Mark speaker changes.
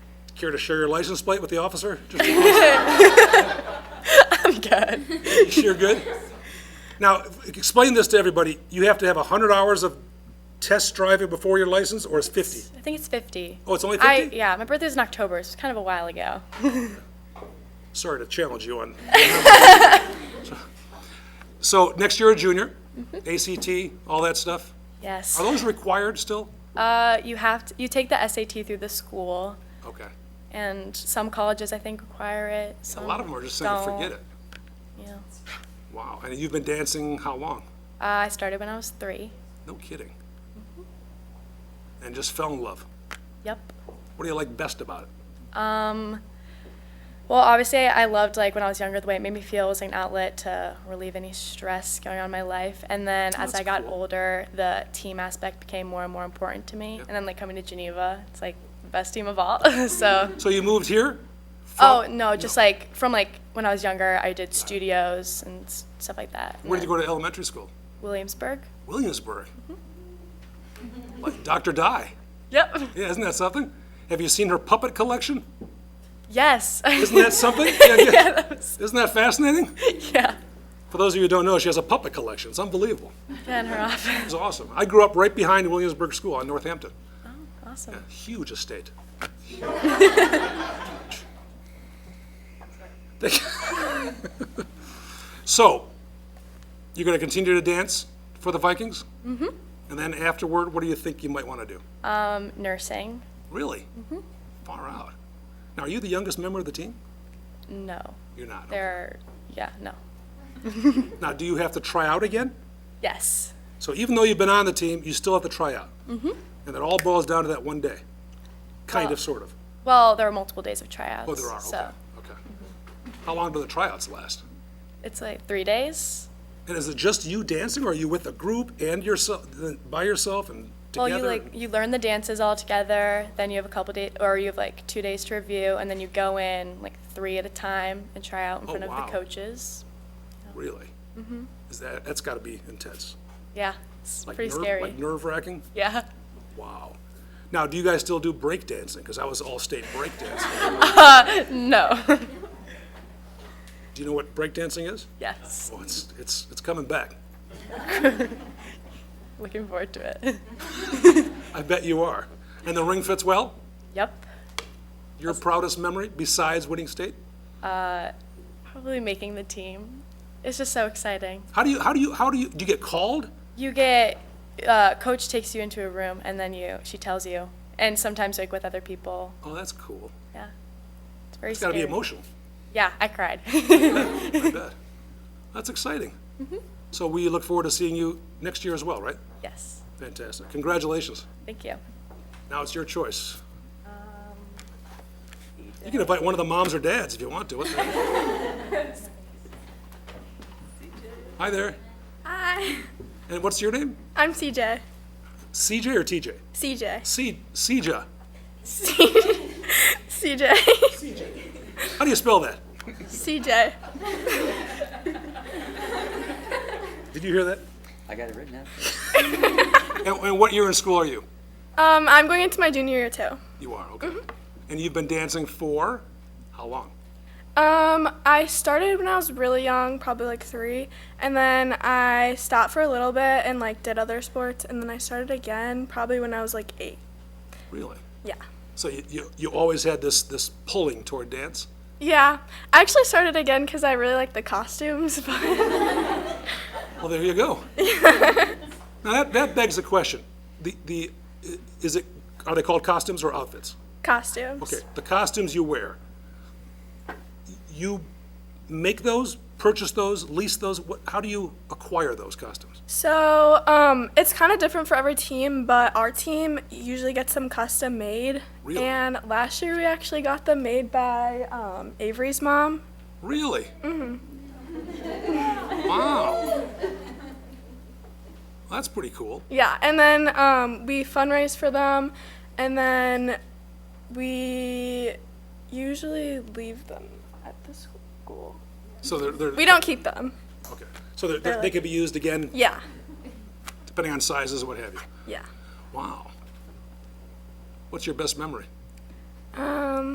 Speaker 1: Care to share your license plate with the officer? Just
Speaker 2: I'm good.
Speaker 1: You're good? Now, explain this to everybody. You have to have 100 hours of test driving before your license, or it's 50?
Speaker 2: I think it's 50.
Speaker 1: Oh, it's only
Speaker 2: I,
Speaker 1: 50?
Speaker 2: yeah, my birthday's in October, so it's kind of a while ago.
Speaker 1: Sorry to challenge you on. So next year, a junior, ACT, all that stuff.
Speaker 2: Yes.
Speaker 1: Are those required still?
Speaker 2: Uh, you have to, you take the SAT through the school,
Speaker 1: Okay.
Speaker 2: and some colleges I think require it.
Speaker 1: A
Speaker 2: Some
Speaker 1: lot of them are just saying, forget it.
Speaker 2: Yeah.
Speaker 1: Wow. And you've been dancing how long?
Speaker 2: Uh, I started when I was three.
Speaker 1: No kidding. And just fell in love.
Speaker 2: Yep.
Speaker 1: What do you like best about it?
Speaker 2: Well, obviously, I loved like when I was younger the way it made me feel was like an outlet to relieve any stress going on in my life. And then
Speaker 1: Oh,
Speaker 2: as
Speaker 1: That's
Speaker 2: I got
Speaker 1: cool.
Speaker 2: older, the team aspect became more and more important to me. And then like coming to Geneva, it's like the best team of all. so.
Speaker 1: So you moved here?
Speaker 2: Oh
Speaker 1: from-
Speaker 2: no, just like from like when I was younger, I did studios and s- stuff like that.
Speaker 1: Where did you go to elementary school?
Speaker 2: Williamsburg.
Speaker 1: Williamsburg. Like Dr. Dye.
Speaker 2: Yep.
Speaker 1: Yeah, isn't that something? Have you seen her puppet collection?
Speaker 2: Yes.
Speaker 1: Isn't that something? Yeah, yeah. Isn't that fascinating?
Speaker 2: yeah.
Speaker 1: For those of you who don't know, she has a puppet collection. It's unbelievable.
Speaker 2: And her office.
Speaker 1: It's awesome. I grew up right behind Williamsburg School on Northampton.
Speaker 2: Awesome.
Speaker 1: Huge estate. so, you're going to continue to dance for the Vikings? Mm-hmm. And then afterward, what do you think you might want to do?
Speaker 2: Um, nursing.
Speaker 1: Really?
Speaker 2: Mm-hmm.
Speaker 1: Far out. Now, are you the youngest member of the team?
Speaker 2: No.
Speaker 1: You're not. okay.
Speaker 2: There. Yeah. No.
Speaker 1: Now, do you have to try out again?
Speaker 2: Yes.
Speaker 1: So even though you've been on the team, you still have to try out. Mm-hmm. And it all boils down to that one day. Kind of, sort of.
Speaker 2: Well, there are multiple days of tryouts.
Speaker 1: Oh, there are,
Speaker 2: So Mm-hmm.
Speaker 1: okay, okay. How long do the tryouts last?
Speaker 2: it's like three days.
Speaker 1: And is it just you dancing, or are you with a group and yourself, by yourself and
Speaker 2: Well,
Speaker 1: together?
Speaker 2: Oh, you like you learn the dances all together. Then you have a couple days, or you have like two days to review, and then you go in like three at a time and try out in front
Speaker 1: Oh, wow.
Speaker 2: of the coaches.
Speaker 1: Really? Mm-hmm. Is that, that's gotta be intense.
Speaker 2: Yeah. It's
Speaker 1: Like
Speaker 2: pretty
Speaker 1: nerve-
Speaker 2: scary.
Speaker 1: Like nerve wracking?
Speaker 2: yeah.
Speaker 1: Wow. Now, do you guys still do break dancing? Because I was all-state break dancing.
Speaker 2: No.
Speaker 1: Do you know what break dancing is?
Speaker 2: yes.
Speaker 1: Oh, it's, it's, it's coming back.
Speaker 2: Looking forward to it.
Speaker 1: I bet you are. And the ring fits well?
Speaker 2: yep.
Speaker 1: Your proudest memory besides winning state?
Speaker 2: Probably making the team. It's just so exciting.
Speaker 1: How do you, how do you, how do you, do you get called?
Speaker 2: You get uh, coach takes you into a room and then you she tells you, and sometimes like with other people.
Speaker 1: Oh, that's cool.
Speaker 2: Yeah. It's very.
Speaker 1: It's got to be
Speaker 2: scary.
Speaker 1: emotional.
Speaker 2: Yeah, I cried.
Speaker 1: I bet. That's exciting. So we look forward to seeing you next year as well, right?
Speaker 2: yes.
Speaker 1: Fantastic. Congratulations.
Speaker 2: Thank you.
Speaker 1: Now it's your choice. You can invite one of the moms or dads if you want to. What the- Hi there.
Speaker 3: Hi,
Speaker 1: And what's your name?
Speaker 3: I'm CJ.
Speaker 1: CJ or TJ?
Speaker 3: CJ.
Speaker 1: C, CJ.
Speaker 3: CJ.
Speaker 1: How do you spell that?
Speaker 3: CJ.
Speaker 1: Did you hear that?
Speaker 4: I got it written out.
Speaker 1: And, and what year in school are you?
Speaker 3: Um, I'm going into my junior year too.
Speaker 1: You are, okay. And you've been dancing for how long?
Speaker 3: Um, I started when I was really young, probably like three, and then I stopped for a little bit and like did other sports, and then I started again probably when I was like eight.
Speaker 1: Really?
Speaker 3: Yeah.
Speaker 1: So you, you, you always had this, this pulling toward dance?
Speaker 3: Yeah, I actually started again because I really like the costumes, but
Speaker 1: Well, there you go. now that, that begs the question. The, the, i- is it, are they called costumes or outfits?
Speaker 3: costumes.
Speaker 1: Okay, the costumes you wear, you make those, purchase those, lease those? What, how do you acquire those costumes?
Speaker 3: So, um, it's kind of different for every team, but our team usually gets them custom made.
Speaker 1: Really?
Speaker 3: And last year we actually got them made by um, Avery's mom.
Speaker 1: Really? Mm-hmm. Wow. that's pretty cool.
Speaker 3: Yeah, and then um, we fundraise for them, and then we usually leave them at the school.
Speaker 1: So they're, they're.
Speaker 3: We don't keep them.
Speaker 1: Okay, so they're- they're, they
Speaker 3: like-
Speaker 1: could be used again,
Speaker 3: Yeah,
Speaker 1: depending on sizes, what have you.
Speaker 3: yeah.
Speaker 1: Wow. What's your best memory?